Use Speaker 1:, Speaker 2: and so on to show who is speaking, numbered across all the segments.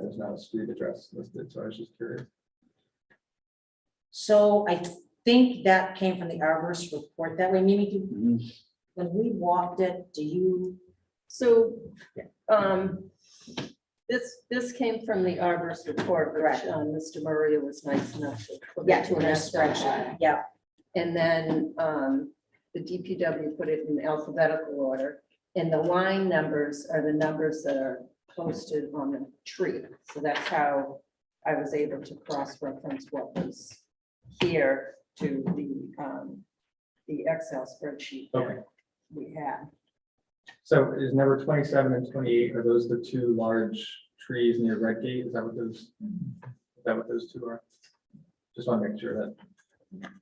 Speaker 1: there's not a street address listed, so I was just curious.
Speaker 2: So I think that came from the arborist report that way. Mimi, do-
Speaker 1: Mm-hmm.
Speaker 3: Mhm.
Speaker 2: when we walked it, do you,
Speaker 4: So, um, this, this came from the arborist report, which,
Speaker 2: Correct.
Speaker 4: um, Mr. Murray was nice enough to. put
Speaker 2: yeah,
Speaker 4: into
Speaker 2: to
Speaker 4: an
Speaker 2: an
Speaker 4: SRI.
Speaker 2: spreadsheet? Yeah,
Speaker 4: And then, um, the DPW put it in alphabetical order, and the line numbers are the numbers that are posted on the tree. So that's how I was able to cross-reference what was here to the, um, the Excel spreadsheet
Speaker 1: Okay.
Speaker 4: that we had.
Speaker 1: So is number twenty-seven and twenty-eight, are those the two large trees near Red Gate? Is that what those, is that what those two are? Just want to make sure that,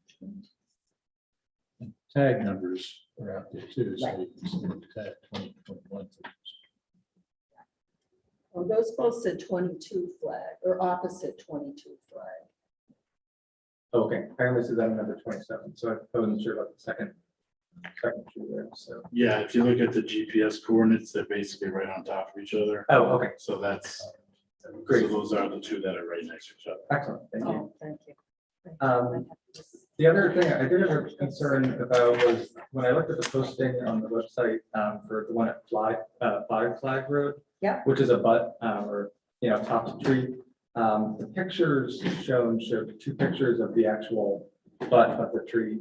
Speaker 3: Tag numbers are out there too, so you can see the tag 2021.
Speaker 4: Well, those both said twenty-two flag or opposite twenty-two flag.
Speaker 1: oh, okay, I only see that in number twenty-seven, so I wasn't sure about the second. Second tree there, so,
Speaker 5: Yeah, if you look at the GPS coordinates, they're basically right on top of each other.
Speaker 1: oh, okay,
Speaker 5: So that's, so
Speaker 1: great,
Speaker 5: those are the two that are right next to each other.
Speaker 1: excellent, thank you.
Speaker 4: Oh, thank you.
Speaker 1: Um, The other thing I did have a concern about was when I looked at the posting on the website um, for the one at Fly, uh, Flag Flag Road.
Speaker 2: Yep.
Speaker 1: Which is a butt, uh, or, you know, top tree. Um, the pictures shown showed two pictures of the actual butt of the tree.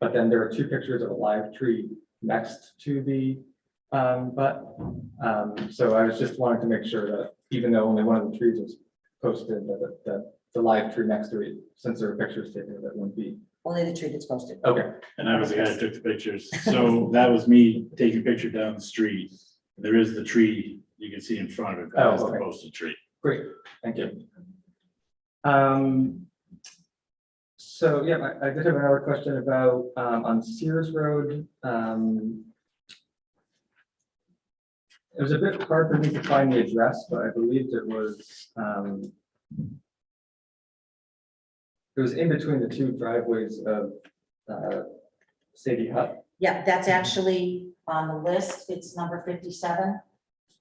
Speaker 1: But then there are two pictures of a live tree next to the, um, butt. Um, so I was just wanting to make sure that even though only one of the trees was posted, that, that the live tree next to it, since there are pictures taken, that wouldn't be
Speaker 2: only the tree that's posted.
Speaker 1: Okay,
Speaker 5: And I was the guy that took the pictures. So that was me taking a picture down the street. There is the tree you can see in front of it. That is
Speaker 1: Oh,
Speaker 5: the
Speaker 1: okay.
Speaker 5: posted tree.
Speaker 1: great, thank you. Um, so, yeah, I, I did have another question about, um, on Sears Road, um. It was a bit hard for me to find the address, but I believed it was, um. It was in between the two driveways of, uh, Sadie Hut.
Speaker 2: Yeah, that's actually on the list. It's number fifty-seven.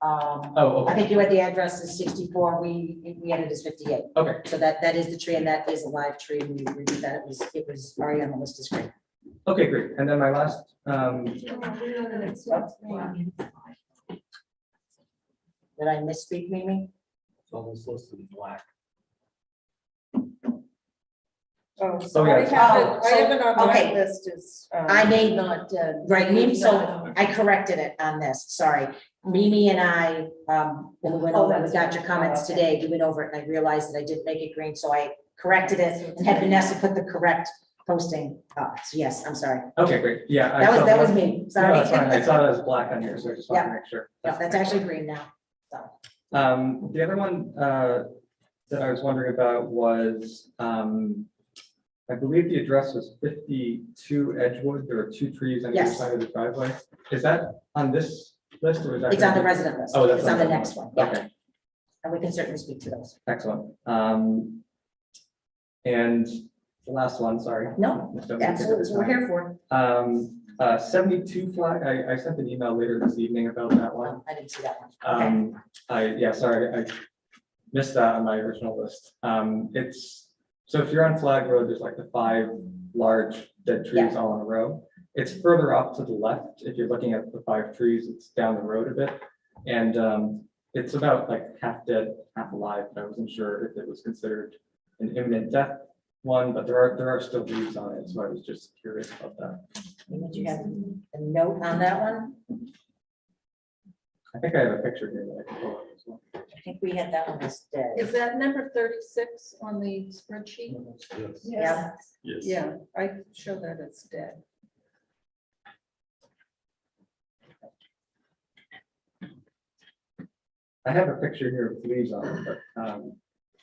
Speaker 2: Um,
Speaker 1: Oh,
Speaker 2: I
Speaker 1: okay,
Speaker 2: think you had the address as sixty-four. We, we had it as fifty-eight.
Speaker 1: okay,
Speaker 2: So that, that is the tree and that is a live tree. and We reviewed that. It was, it was already on the list as great.
Speaker 1: okay, great. And then my last, um,
Speaker 2: Did I misspeak, Mimi?
Speaker 6: It's almost listed in black.
Speaker 4: Oh,
Speaker 1: Oh,
Speaker 4: so
Speaker 1: yeah.
Speaker 4: I have
Speaker 2: Oh,
Speaker 4: it, I have it on my
Speaker 2: okay.
Speaker 4: list uh, is.
Speaker 2: I may- uh,
Speaker 4: not dead.
Speaker 2: Right, Mimi, so I corrected it on this, sorry. Mimi and I, um, when we went
Speaker 4: Oh,
Speaker 2: over, we
Speaker 4: that's
Speaker 2: got your
Speaker 4: right.
Speaker 2: comments
Speaker 4: Okay.
Speaker 2: today, we went over it and I realized that I didn't make it green, so I corrected it and had Vanessa put the correct posting up. So yes, I'm sorry.
Speaker 1: okay, great, yeah. I
Speaker 2: That was,
Speaker 1: saw
Speaker 2: that was me,
Speaker 1: No,
Speaker 2: sorry.
Speaker 1: that's fine. I saw it as black on here, so I just wanted to make sure.
Speaker 2: No, That's actually green now.
Speaker 1: Um, the other one, uh, that I was wondering about was, um, I believe the address was fifty-two Edgewood. There are two trees on either
Speaker 2: Yes.
Speaker 1: side of the driveway. Is that on this list or is that?
Speaker 2: It's on the resident list.
Speaker 1: Oh, that's
Speaker 2: It's on the
Speaker 1: on-
Speaker 2: next one, yeah,
Speaker 1: Okay,
Speaker 2: and we can certainly speak to those.
Speaker 1: excellent. Um, and the last one, sorry.
Speaker 2: No,
Speaker 1: Don't make it
Speaker 2: Absolutely, that's
Speaker 1: this
Speaker 2: what we're
Speaker 1: time.
Speaker 2: here for.
Speaker 1: Um, uh, seventy-two Flag, I, I sent an email later this evening about that one.
Speaker 2: Oh, I didn't see that one. Okay,
Speaker 1: Um, I, yeah, sorry, I missed that on my original list. Um, it's, so if you're on Flag Road, there's like the five large dead trees all in a row. It's further off to the left. If you're looking at the five trees, it's down the road a bit. And, um, it's about like half dead, half alive, but I wasn't sure if it was considered an imminent death one, but there are, there are still leaves on it, so I was just curious about that.
Speaker 2: did you have a note on that one?
Speaker 1: I think I have a picture here that I can pull up as well.
Speaker 2: I think we had that one as dead.
Speaker 4: Is that number thirty-six on the spreadsheet?
Speaker 5: Yes.
Speaker 2: Yeah.
Speaker 5: Yes.
Speaker 4: Yeah, I show that it's dead.
Speaker 1: I have a picture here of leaves on it, but, um,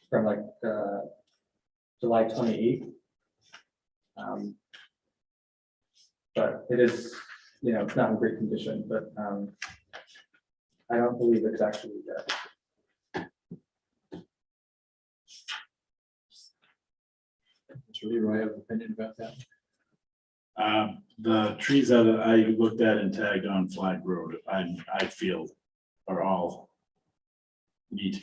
Speaker 1: from like, uh, July twenty-eighth. Um. But it is, you know, it's not in great condition, but, um, I don't believe it's actually dead.
Speaker 3: Mr. Leroy, I have an opinion about that.
Speaker 5: Um, the trees that I looked at and tagged on Flag Road, I, I feel are all need to